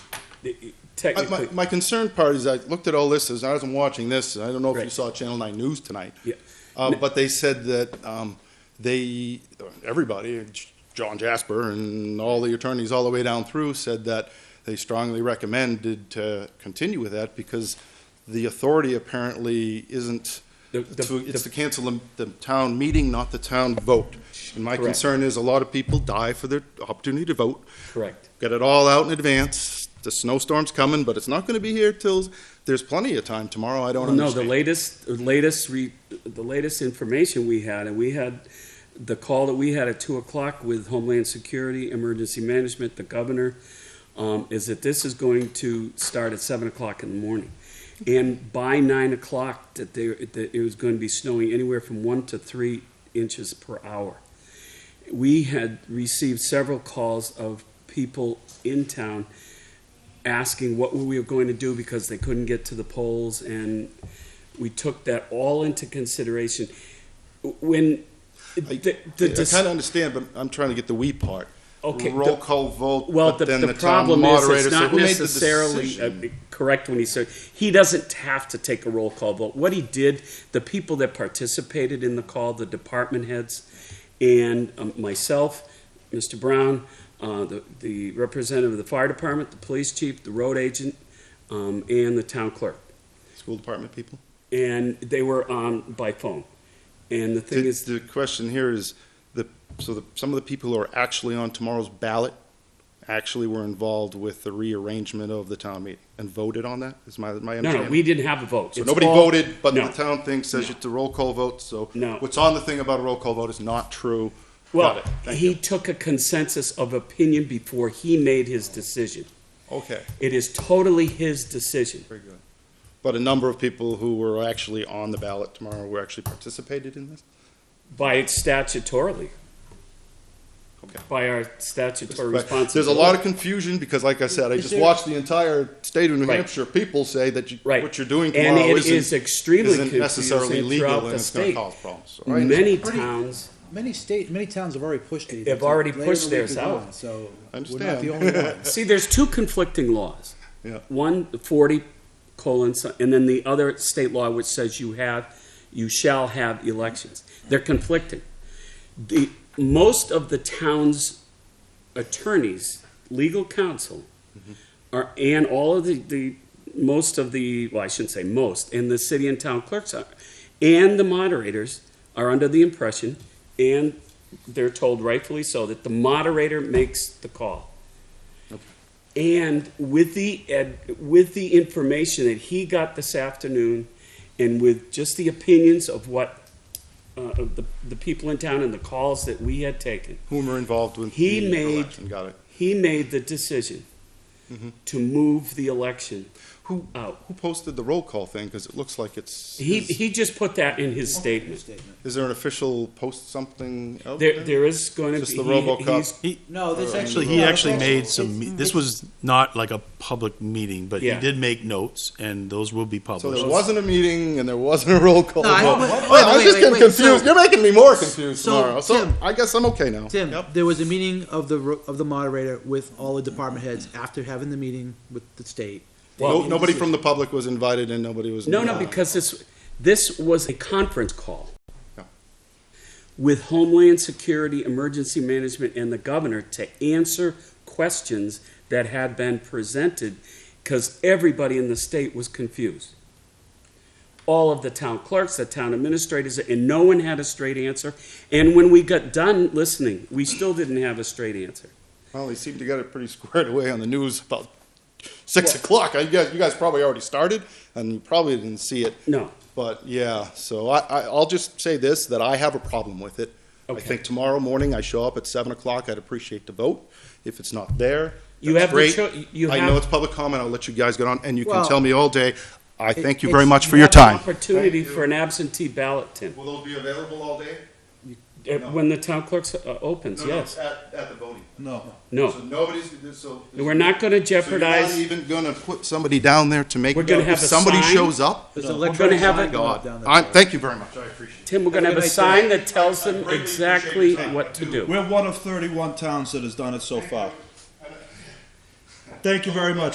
the- it- I- My, Technically, my concern part is I looked at all this as I was watching this, and I don't know if you Right. saw Channel Nine News tonight. Yeah. Uh, but they said that, um, they, everybody, J- John Jasper and all the attorneys all the way down through said that they strongly recommended to continue with that because the authority apparently isn't, The- the- to- it's the- to cancel the, the town meeting, not the town vote. And my Correct. concern is a lot of people die for their opportunity to vote correct. get it all out in advance. The snowstorm's coming, but it's not going to be here till there's plenty of time tomorrow. I don't Well, no, the understand. latest, the latest, re- the latest information we had, and we had the call that we had at two o'clock with Homeland Security, Emergency Management, the governor, um, is that this is going to start at seven o'clock in the morning. And by nine o'clock, that there, that it was going to be snowing anywhere from one to three inches per hour. We had received several calls of people in town asking what we were going to do because they couldn't get to the polls, and we took that all into consideration. When the, the, I, kind of understand, but I'm trying to get the we part. Okay, Roll the- call vote. well, but the, then the, the, problem town is moderator it's not said, "Who made the necessarily decision?" uh, correct when he said he doesn't have to take a roll call vote. What he did, the people that participated in the call, the department heads, and um, myself, Mr. Brown, uh, the the representative of the fire department, the police chief, the road agent, um, and the town clerk. School department people. and they were on by phone. And the thing The, is, the question here is the so the, some of the people who are actually on tomorrow's ballot actually were involved with the rearrangement of the town meeting and voted on that. Is my my no, understanding? no, we didn't have a vote. So It's nobody all- voted, but no. the town thing says No. it's a roll call vote. So No. what's on the thing about a roll call vote is not true. Got Well, it. Thank he you. took a consensus of opinion before he made his decision. Okay, It is totally his decision. very good. But a number of people who were actually on the ballot tomorrow were actually participated in this. By it statutorily. Okay. By our statutory But responsibility. There's a lot of confusion because, like I said, I Is just there- watched the entire state of New Right. Hampshire people say that you- Right. what you're doing And tomorrow it isn't- is extremely isn't necessarily confusing legal throughout and the it's going state. to cause problems. So I understand. Many Pretty- towns, Many state, many towns have already pushed it. They've already Later in pushed the week theirs is out. gone, So I we're not understand. the only ones. see, there's two conflicting laws. Yeah. One, the forty colon, so- and then the other state law which says you have, you shall have elections. They're conflicting. The, most of the town's attorneys, legal counsel, are, and all of the, the, most of the, well, I shouldn't say most, and the city and town clerks are, and the moderators are under the impression, and they're told rightfully so, that the moderator makes the call. And with the ed, with the information that he got this afternoon, and with just the opinions of what uh, of the the people in town and the calls that we had taken, Whom are involved with He the made- election, got it. Mm-hmm. he made the decision to move the election Who, out. who posted the roll call thing? Because it looks like it's. He his- he just put that in his statement. Is there an official post something out There there is going to Just be the he- RoboCop. he's- No, this Actually, he actually made some, this was not like a public meeting, but he Yeah. did make notes, and those will be so published. there wasn't a meeting and there wasn't a roll call. No, I- vote. wait, Oh, wait, I was wait, just wait, getting wait, confused. so- You're making me more confused so, tomorrow. So Tim- I guess I'm okay now. Tim, Yep. there was a meeting of the ro- of the moderator with all the department heads after having the meeting with the state. No, nobody from the public was invited and nobody was. No, no, because this, this was a conference call Yeah. with Homeland Security, Emergency Management, and the governor to answer questions that had been presented because everybody in the state was confused. All of the town clerks, the town administrators, and no one had a straight answer. And when we got done listening, we still didn't have a straight answer. Well, they seemed to get it pretty squared away on the news about six o'clock. I guess you guys probably already started and you probably didn't see it. No. But yeah, so I, I, I'll just say this that I have a problem with it. I Okay. think tomorrow morning I show up at seven o'clock. I'd appreciate the vote. If it's not there, You that's have the great. cho- you I have- know it's public comment. I'll let you guys get on, and you can Well- tell me all day. I thank you It's- very much for your have an time. Opportunity Thank you. for an absentee ballot, Tim. Will those be available all day? Uh, No. When the town clerk's uh, opens, yes. at, at the voting. No. No. So nobody's so. We're not gonna jeopardize- So you're not even gonna put somebody down there to make. We're gonna if have a somebody sign. shows up. There's No. electronic We're gonna have sign a- going God, up down there. I, thank you very much. I appreciate it. Tim, we're gonna have Have a a good night, sign that tells them greatly appreciate exactly your time. what to do. We're one of 31 towns that has done it so far. Thank you very much.